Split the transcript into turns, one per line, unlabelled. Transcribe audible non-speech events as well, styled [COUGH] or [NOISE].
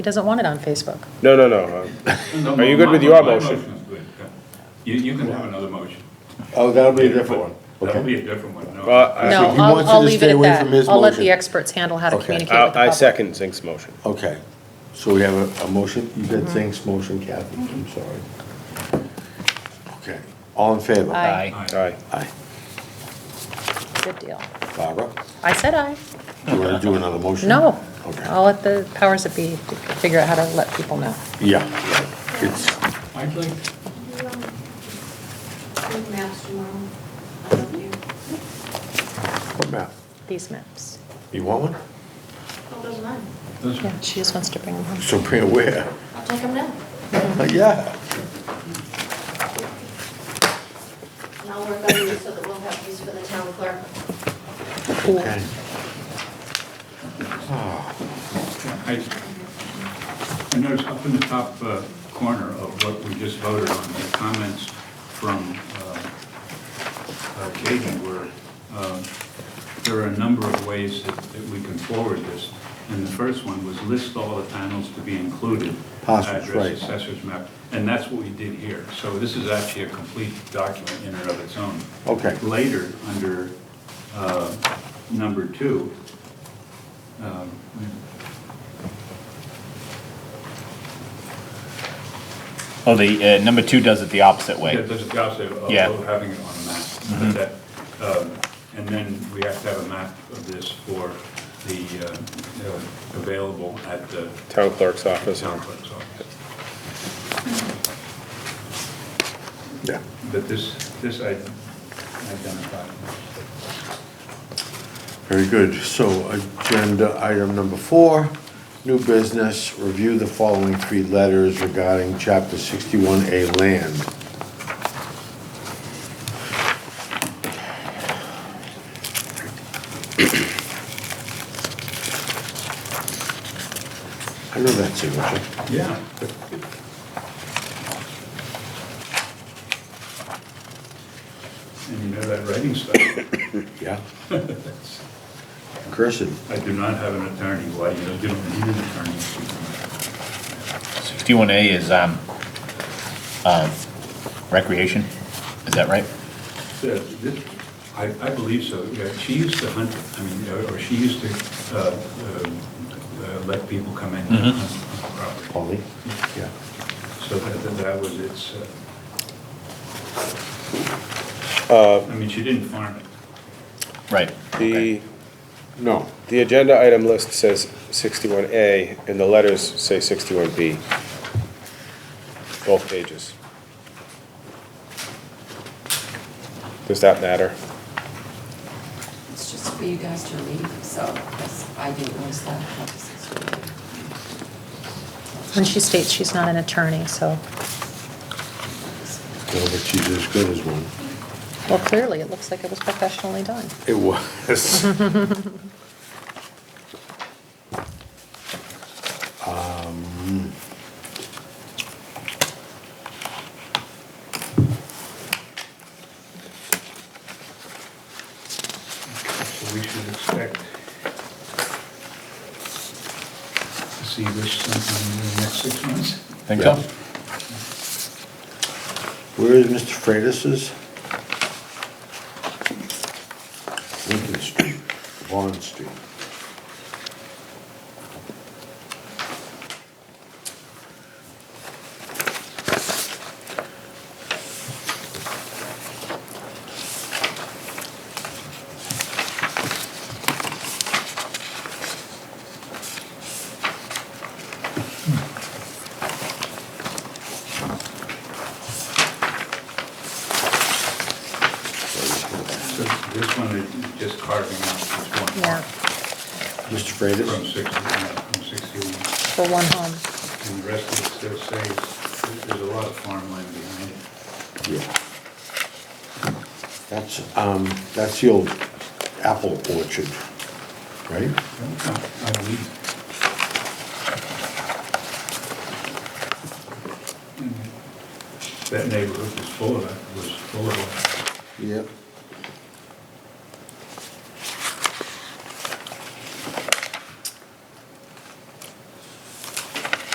He doesn't want it on Facebook.
No, no, no. uh, Are you good with your motion?
You, you can have another motion.
Oh, that'll be a different one.
That'll be a different one, no.
Well, I-
No,
he
I'll,
wants you
I'll
to
leave
stay
it at
away from
that.
his
I'll let the
motion.
experts handle how to
Okay.
communicate with the
I I
public.
second Zink's motion.
Okay, so we have a, a motion, you did things motion, Kathy,
Mm-hmm.
I'm sorry. Okay, all in favor?
Aye.
All right.
Aye.
Good deal.
Barbara,
I said aye.
do you wanna do another motion?
No. I'll
Okay,
let the powers that be figure out how to let people know.
yeah, yeah, it's,
I'd like,
You, um, do maps tomorrow, I love you.
what map?
These maps.
You want one?
Oh, those are mine.
this,
Yeah, she just wants to bring them home.
So bring it where?
I'll take them now,
Mm-hmm.
Yeah,
and I'll work on these so that we'll have these for the town clerk.
Cool.
okay. Ah,
I, I noticed up in the top uh, corner of what we just voted on, the comments from uh, uh, Katie were, um, there are a number of ways that that we can forward this. And the first one was list all the panels to be included.
Parcels, right.
Address, assessors map, and that's what we did here. So this is actually a complete document in and of its own.
Okay.
Later, under uh, number two, um,
Oh, the, uh, number two does it the opposite way.
Yeah, there's a gap there of
Yeah. Mm-hmm.
of having it on a map. but that, um, And then we have to have a map of this for the, uh, you know, available at the
Town clerk's office.
town clerk's office.
Yeah,
But this, this I identified.
very good, so agenda item number four, new business, review the following three letters regarding chapter sixty-one A land. I know that signature.
Yeah. And you know that writing stuff, [COUGHS]
Yeah. Cursive.
I do not have an attorney, why, you know, you don't need an attorney.
Sixty-one A is, um, um, recreation, is that right?
Yeah, this- I, I believe so, yeah, she used to hunt, I mean, or- or she used to, uh, um, uh, let people come in and hunt property.
Polly? Yeah.
So that, that- that was its, uh, I mean, she didn't farm it.
Right.
The,
No.
the agenda item list says 61A, and the letters say 61B. Both pages. Does that matter?
It's just for you guys to read, so that's- I didn't list that.
And she states she's not an attorney, so,
No, but she's as good as one.
well, clearly, it looks like it was professionally done.
It was. [LAUGHS] Um,
So we should expect to see this sometime in the next six months.
Think so?
Yeah. Where is Mr. Freitas's? Lincoln Street, Vaughn Street.
So this one is just carving out this one.
Yeah,
Mr.
From
Freitas?
60, from 61.
for one home.
And the rest of it still says, there's a lot of farmland behind it.
Yeah. That's, um, that's the old apple orchard, right?
I believe. That neighborhood was full of, was full of
Yep.